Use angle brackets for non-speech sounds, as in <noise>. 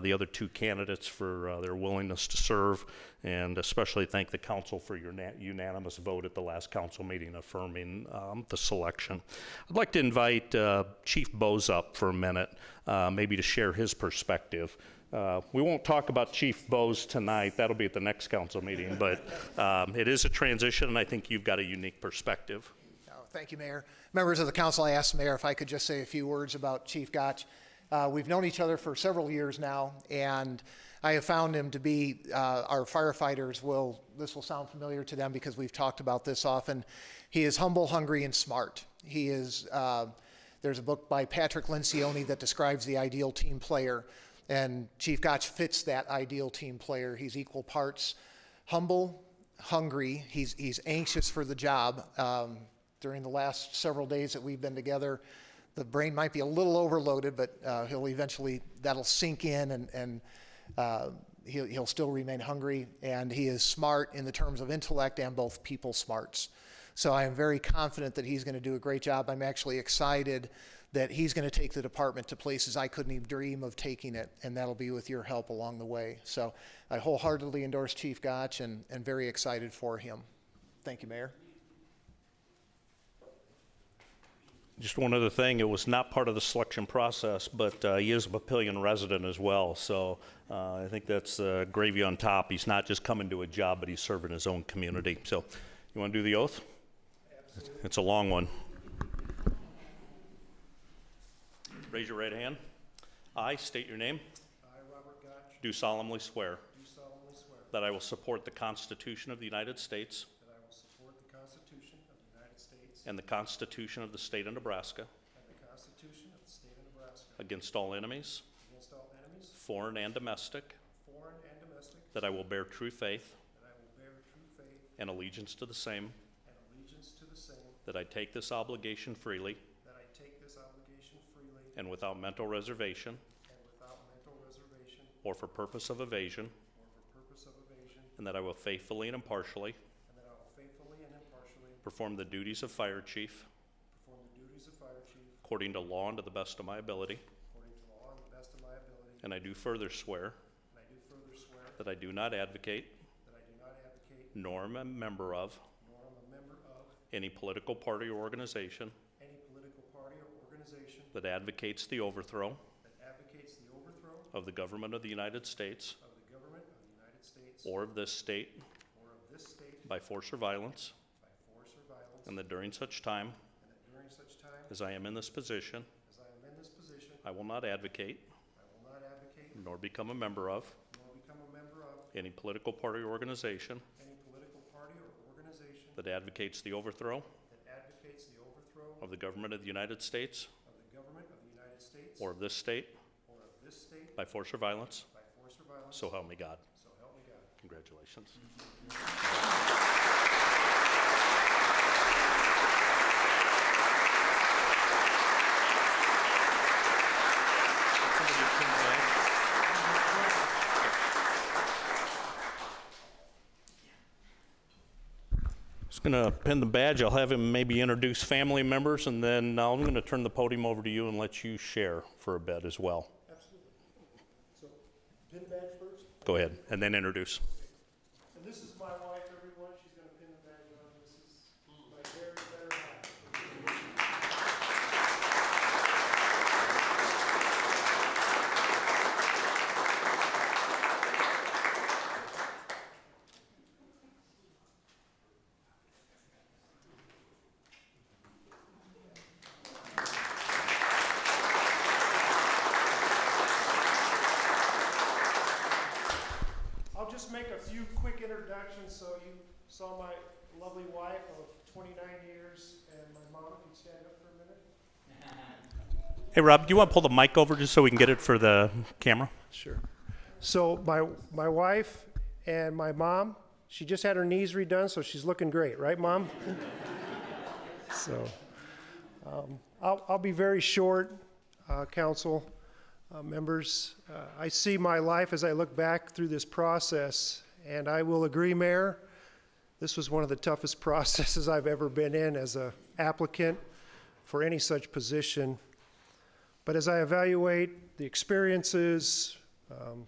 the other two candidates for uh, their willingness to serve, and especially thank the council for your na- unanimous vote at the last council meeting affirming um, the selection. I'd like to invite uh, Chief Bose up for a minute, uh, maybe to share his perspective. Uh, We won't talk about Chief Bose tonight, that'll be at the next council meeting, but um, it is a transition, and I think you've got a unique perspective. Oh, Thank you, Mayor. Members of the council, I asked the mayor if I could just say a few words about Chief Gotch. Uh, We've known each other for several years now, and I have found him to be, uh, our firefighters will, this will sound familiar to them because we've talked about this often. He is humble, hungry, and smart. He is, uh, there's a book by Patrick Lencioni that describes the ideal team player, and Chief Gotch fits that ideal team player. He's equal parts humble, hungry. He's, he's anxious for the job. Um, during the last several days that we've been together, the brain might be a little overloaded, but uh, he'll eventually, that'll sink in and, and uh, he'll, he'll still remain hungry. And he is smart in the terms of intellect and both people smarts. So I am very confident that he's going to do a great job. I'm actually excited that he's going to take the department to places I couldn't even dream of taking it, and that'll be with your help along the way. So I wholeheartedly endorse Chief Gotch and, and very excited for him. Thank you, Mayor. Just one other thing, it was not part of the selection process, but uh, he is a Papillion resident as well, so uh, I think that's uh, gravy on top. He's not just coming to a job, but he's serving his own community. So, you want to do the oath? It's a long one. Raise your right hand. I state your name. I, Robert Gotch, Do solemnly swear do solemnly swear that I will support the Constitution of the United States that I will support the Constitution of the United States and the Constitution of the State of Nebraska and the Constitution of the State of Nebraska against all enemies, against all enemies, foreign and domestic, foreign and domestic, that I will bear true faith that I will bear true faith and allegiance to the same, and allegiance to the same, that I take this obligation freely that I take this obligation freely and without mental reservation and without mental reservation or for purpose of evasion, or for purpose of evasion, and that I will faithfully and impartially and that I will faithfully and impartially perform the duties of fire chief perform the duties of fire chief according to law and to the best of my ability. according to law and the best of my ability. And I do further swear And I do further swear that I do not advocate that I do not advocate nor am a member of nor am a member of any political party or organization any political party or organization that advocates the overthrow that advocates the overthrow of the government of the United States of the government of the United States or of this state or of this state by force or violence, by force or violence, and that during such time and that during such time as I am in this position, as I am in this position, I will not advocate I will not advocate nor become a member of nor become a member of any political party or organization any political party or organization that advocates the overthrow that advocates the overthrow of the government of the United States of the government of the United States or of this state or of this state by force or violence, by force or violence, so help me God. so help me God. Congratulations. Just gonna pin the badge. I'll have him maybe introduce family members, and then I'm gonna turn the podium over to you and let you share for a bit as well. Absolutely. So, pin the badge first. Go ahead, and then introduce. And this is my wife, everyone. She's going to pin the badge on. This is my very better half. I'll just make a few quick introductions. So you saw my lovely wife of 29 years and my mom. If you'd stand up for a minute. Hey, Rob, do you want to pull the mic over just so we can get it for the camera? Sure. So my my wife and my mom. She just had her knees redone, so she's looking great, right, mom? <laughs> so um, I'll I'll be very short, uh, council uh, members. Uh, I see my life as I look back through this process, and I will agree, Mayor. This was one of the toughest <laughs> processes I've ever been in as a applicant for any such position. But as I evaluate the experiences, um,